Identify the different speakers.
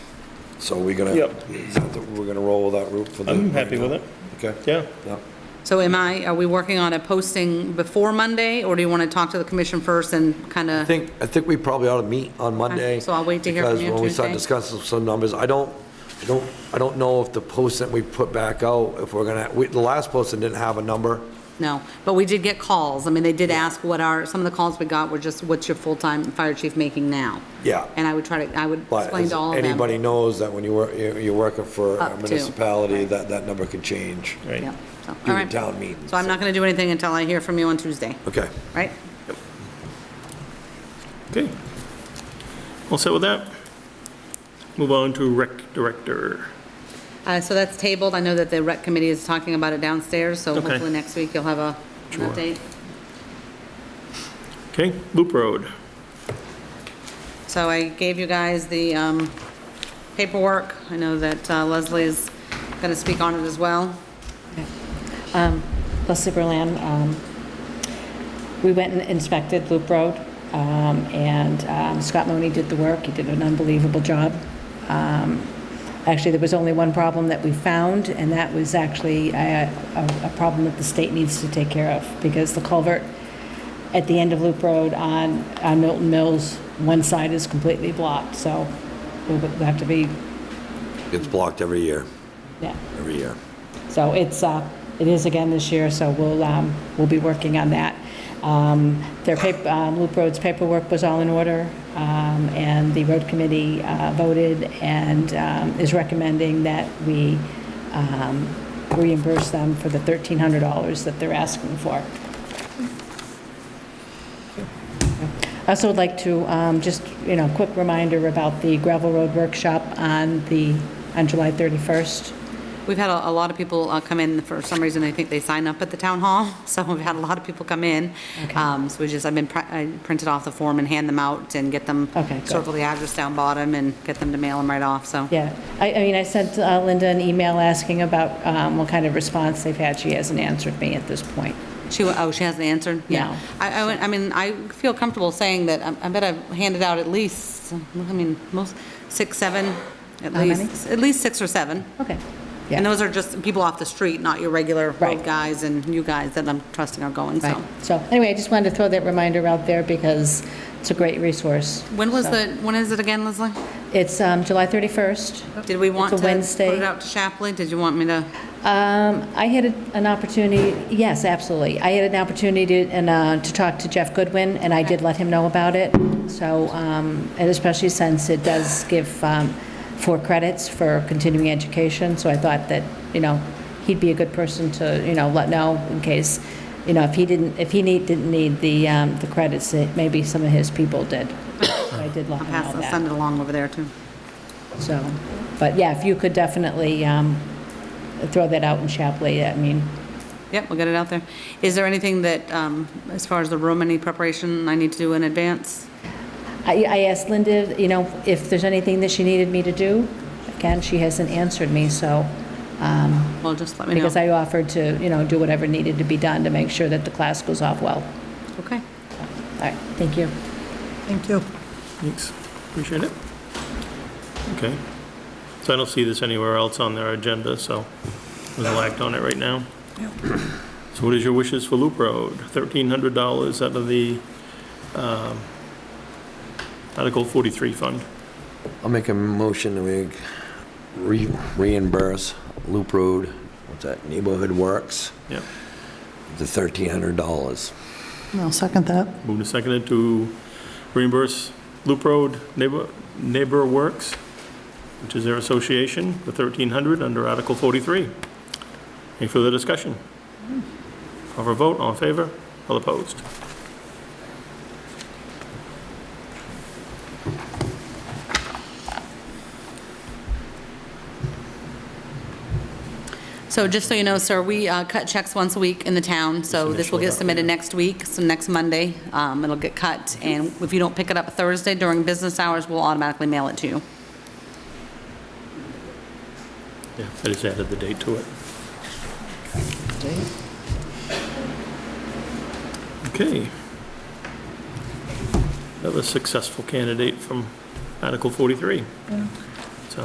Speaker 1: So we're gonna,
Speaker 2: Yep.
Speaker 1: is that the- we're gonna roll that route for the.
Speaker 2: I'm happy with it.
Speaker 1: Okay.
Speaker 2: Yeah.
Speaker 1: Yep.
Speaker 3: So am I, are we working on a posting before Monday, or do you want to talk to the commission first and kind
Speaker 1: I
Speaker 3: of?
Speaker 1: think, I think we probably ought to meet on Monday.
Speaker 3: so I'll wait to hear from you
Speaker 1: Because when we start
Speaker 3: Tuesday.
Speaker 1: discussing some numbers, I don't, I don't, I don't know if the post that we put back out, if we're gonna, we, the last posting didn't have a number.
Speaker 3: No, but we did get calls. I mean, they did ask what are, some of the calls we got were just, what's your full-time fire chief making now?
Speaker 1: Yeah.
Speaker 3: And I would try to, I would
Speaker 1: But
Speaker 3: explain
Speaker 1: as
Speaker 3: to all of them.
Speaker 1: anybody knows that when you work, you're you're working for a
Speaker 3: Up to,
Speaker 1: municipality,
Speaker 3: right.
Speaker 1: that, that number could change.
Speaker 2: Right.
Speaker 3: Yep, so, all
Speaker 1: During
Speaker 3: right.
Speaker 1: town meetings,
Speaker 3: So I'm not going to do anything until I hear from you on Tuesday,
Speaker 1: Okay.
Speaker 3: right?
Speaker 2: Okay. All set with that? Move on to rec director.
Speaker 3: Uh, So that's tabled. I know that the rec committee is talking about it downstairs, so
Speaker 2: Okay.
Speaker 3: hopefully next week you'll have a an
Speaker 2: Sure.
Speaker 3: update.
Speaker 2: Okay, Loop Road.
Speaker 3: So I gave you guys the um, paperwork. I know that uh, Leslie is going to speak on it as well.
Speaker 4: Leslie Berland, um, we went and inspected Loop Road, um, and um, Scott Money did the work. He did an unbelievable job. Um, Actually, there was only one problem that we found, and that was actually uh, a a- a problem that the state needs to take care of, because the culvert at the end of Loop Road on on Milton Mills, one side is completely blocked, so we'll have to be,
Speaker 1: It's blocked every year,
Speaker 4: yeah.
Speaker 1: every year.
Speaker 4: So it's, uh, it is again this year, so we'll, um, we'll be working on that. Um, Their pap- um, Loop Road's paperwork was all in order, um, and the road committee uh, voted and um, is recommending that we um, reimburse them for the $1,300 that they're asking for. I also would like to, um, just, you know, quick reminder about the gravel road workshop on the, on July 31st.
Speaker 3: We've had a, a lot of people uh, come in, for some reason, I think they sign up at the town hall, so we've had a lot of people come in. Um, So we just, I've been, pri- I printed off the form and hand them out and get them,
Speaker 4: Okay, good.
Speaker 3: circle the address down bottom and get them to mail them right off, so.
Speaker 4: Yeah, I, I mean, I sent uh, Linda an email asking about um, what kind of response they've had. She hasn't answered me at this point.
Speaker 3: She, wa- oh, she hasn't answered?
Speaker 4: No.
Speaker 3: I, I, went- I mean, I feel comfortable saying that, um, I- I bet I've handed out at least, I mean, most, six, seven, at
Speaker 4: How many?
Speaker 3: least, at least six or seven.
Speaker 4: Okay.
Speaker 3: And
Speaker 4: Yeah,
Speaker 3: those are just people off the street, not your regular road
Speaker 4: Right.
Speaker 3: guys and you guys that I'm trusting are going, so.
Speaker 4: right. So anyway, I just wanted to throw that reminder out there because it's a great resource.
Speaker 3: When was
Speaker 4: So-
Speaker 3: the, when is it again, Leslie?
Speaker 4: It's um, July 31st.
Speaker 3: Did we want to
Speaker 4: It's a
Speaker 3: put
Speaker 4: Wednesday.
Speaker 3: it out to Shapley? Did you want me to?
Speaker 4: Um, I had a- an opportunity, yes, absolutely. I had an opportunity to- and, uh, to talk to Jeff Goodwin, and I did let him know about it. So, um, and especially since it does give um, four credits for continuing education, so I thought that, you know, he'd be a good person to, you know, let know in case, you know, if he didn't, if he need, didn't need the, um, the credits, that maybe some of his people did. So I did let him
Speaker 3: pass,
Speaker 4: know
Speaker 3: I'll send
Speaker 4: that,
Speaker 3: it along over there too.
Speaker 4: so. But yeah, if you could definitely um, throw that out in Chapley, I mean,
Speaker 3: Yep, we'll get it out there. Is there anything that, um, as far as the room, any preparation I need to do in advance?
Speaker 4: I I asked Linda, you know, if there's anything that she needed me to do. Again, she hasn't answered me, so, um,
Speaker 3: Well, just let me know.
Speaker 4: because I offered to, you know, do whatever needed to be done to make sure that the class goes off well.
Speaker 3: Okay.
Speaker 4: All right, thank you.
Speaker 5: Thank you.
Speaker 2: Thanks, appreciate it. Okay. So I don't see this anywhere else on their agenda, so we'll act on it right now. So what is your wishes for Loop Road? $1,300 out of the um, Article 43 fund.
Speaker 1: I'll make a motion that we re- reimburse Loop Road, what's that, Neighborhood Works,
Speaker 2: Yep.
Speaker 1: the $1,300.
Speaker 5: I'll second that.
Speaker 2: Moved and seconded to reimburse Loop Road Neighbor, Neighbor Works, which is their association, for 1,300 under Article 43. Any further discussion? Call for a vote, all in favor, all opposed?
Speaker 3: So just so you know, sir, we uh, cut checks once a week in the town, so this will get submitted next week, so next Monday. um, It'll get cut, and if you don't pick it up Thursday during business hours, we'll automatically mail it to you.
Speaker 2: Yeah, I just added the date to it. Okay. Another successful candidate from Article 43.